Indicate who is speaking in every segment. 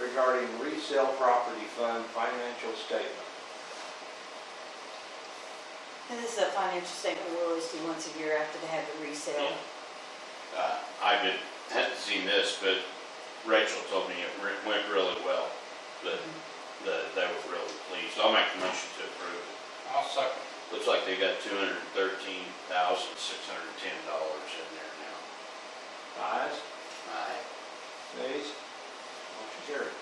Speaker 1: regarding resale property fund financial statement.
Speaker 2: And this is a financial statement we always do once a year after they have the resale.
Speaker 3: Uh, I did, hadn't seen this, but Rachel told me it re- went really well, that, that they were really pleased. I'll make the motion to approve.
Speaker 4: I'll second.
Speaker 3: Looks like they got two hundred and thirteen thousand, six hundred and ten dollars in there now.
Speaker 1: Ayes,
Speaker 3: Aye.
Speaker 1: nays, motion carried.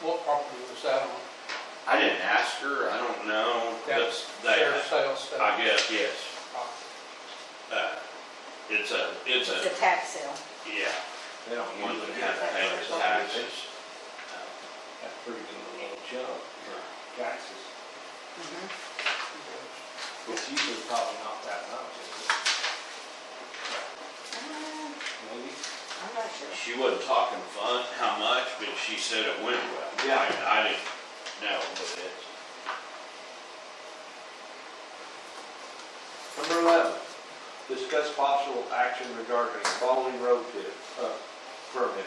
Speaker 4: What property was that on?
Speaker 3: I didn't ask her, I don't know. That's,
Speaker 4: Sheriff's
Speaker 3: they,
Speaker 4: sales
Speaker 3: I guess,
Speaker 4: tax.
Speaker 3: yes. Uh, It's a, it's
Speaker 2: It's
Speaker 3: a,
Speaker 2: a tax sale.
Speaker 3: yeah,
Speaker 1: They don't
Speaker 3: one
Speaker 1: usually get
Speaker 3: that kind of
Speaker 1: that
Speaker 3: pays
Speaker 1: much
Speaker 3: taxes.
Speaker 1: That's pretty good little chunk,
Speaker 3: Uh,
Speaker 1: taxes.
Speaker 2: Mhm.
Speaker 1: It's usually probably not that much, is it?
Speaker 2: Uh,
Speaker 1: Maybe?
Speaker 2: I'm not sure.
Speaker 3: She wasn't talking fun, how much, but she said it went well.
Speaker 1: Yeah.
Speaker 3: I I didn't know, but it's.
Speaker 1: Number eleven, discuss possible action regarding following road pit, uh, permits.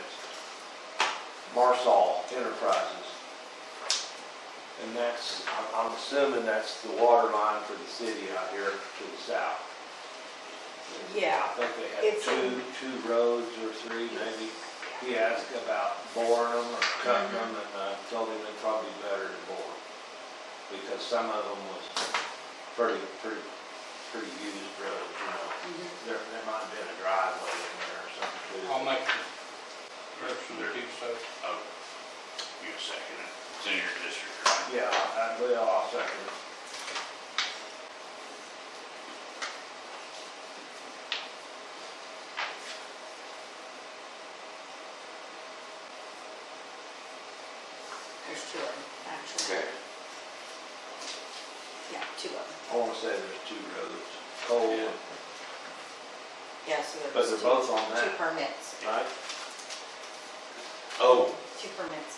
Speaker 1: Marsall Enterprises. And that's, I'm- I'm assuming that's the water line for the city out here to the south.
Speaker 2: Yeah.
Speaker 1: I think they had
Speaker 2: It's-
Speaker 1: two, two roads or three maybe. He asked about boring them or cutting them and I told him it'd probably be better to bore. Because some of them was pretty, pretty, pretty used roads, you know.
Speaker 2: Mhm.
Speaker 1: There, there might have been a driveway in there or something too.
Speaker 4: I'll make the motion to do so.
Speaker 3: Oh, you a second, it. it's in your district, right?
Speaker 1: Yeah, I, well, I'll second it.
Speaker 2: There's two of them, actually. Yeah, two of them.
Speaker 1: I wanna say there's two roads, Cole,
Speaker 3: Yeah.
Speaker 1: and-
Speaker 2: Yeah, so there's two.
Speaker 1: but they're both on
Speaker 2: Two
Speaker 1: that,
Speaker 2: permits,
Speaker 1: right?
Speaker 3: Oh,
Speaker 2: two permits.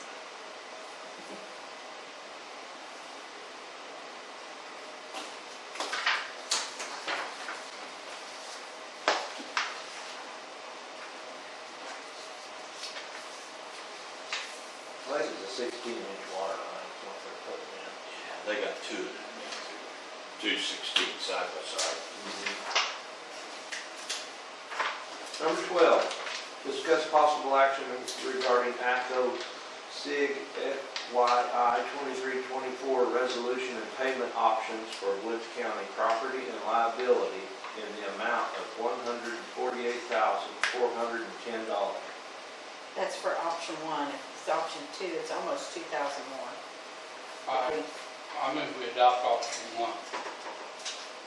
Speaker 1: Place is a sixteen inch water line, is what they're putting in.
Speaker 3: yeah, they got two of them, yeah, two two sixteen side by side.
Speaker 1: Number 12, discuss possible action regarding ACO SIG FYI 2324 resolution and payment options for Woods County property and liability in the amount of $148,410.
Speaker 2: That's for option one. If it's option two, it's almost two thousand more.
Speaker 1: Uh,
Speaker 4: I, I move we adopt option one.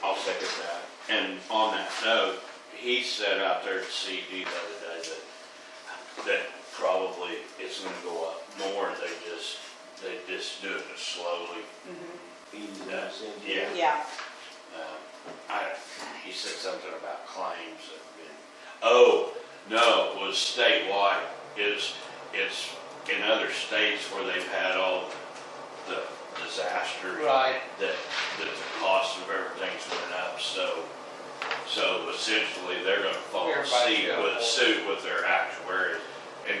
Speaker 3: I'll second that. And on that note, he said out there at CD the other day that, that probably it's gonna go up more, they just, they just doing it slowly.
Speaker 1: Easy
Speaker 3: Yeah.
Speaker 1: to send you.
Speaker 3: Yeah.
Speaker 2: Yeah,
Speaker 3: Um, I, he said something about claims that have been, oh, no, it was statewide. It's, it's in other states where they've had all the disasters.
Speaker 4: Right.
Speaker 3: That, that the cost of everything's went up, so, so essentially they're gonna follow
Speaker 4: Everybody's
Speaker 3: suit
Speaker 4: got
Speaker 3: with,
Speaker 4: more.
Speaker 3: suit with their actuaries. In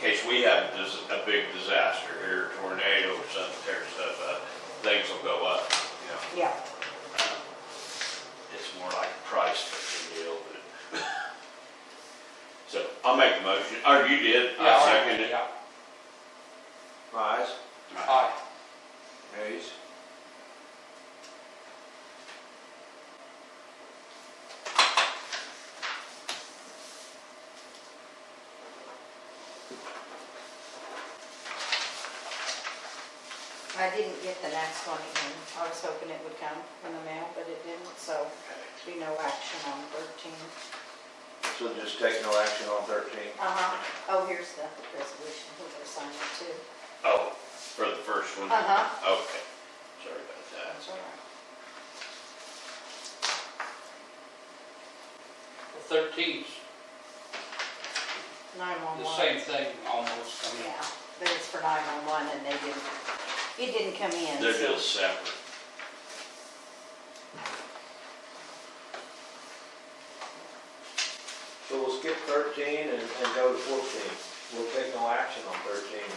Speaker 3: case we have dis- a big disaster here, tornado or something tears stuff up, things will go up, you know.
Speaker 2: yeah.
Speaker 3: Uh, It's more like a price fixing deal, but. So I'll make the motion, or you did,
Speaker 4: Yeah,
Speaker 3: I second it.
Speaker 4: yeah.
Speaker 1: Ayes?
Speaker 4: Aye.
Speaker 1: Ayes.
Speaker 2: I didn't get the next one in. I was hoping it would come in the mail, but it didn't, so be no action on thirteen.
Speaker 1: So just take no action on 13?
Speaker 2: Uh-huh. Oh, here's the resolution. We're gonna sign it too.
Speaker 3: Oh, for the first one?
Speaker 2: Uh-huh.
Speaker 3: Okay, sorry about that.
Speaker 2: That's all right.
Speaker 4: Thirteen's the same
Speaker 2: 911.
Speaker 4: thing almost, I mean,
Speaker 2: Yeah, but it's for 911 and they didn't, it didn't come in.
Speaker 3: They're
Speaker 2: so-
Speaker 3: just separate.
Speaker 1: So we'll skip 13 and and go to 14. We'll take no action on 13.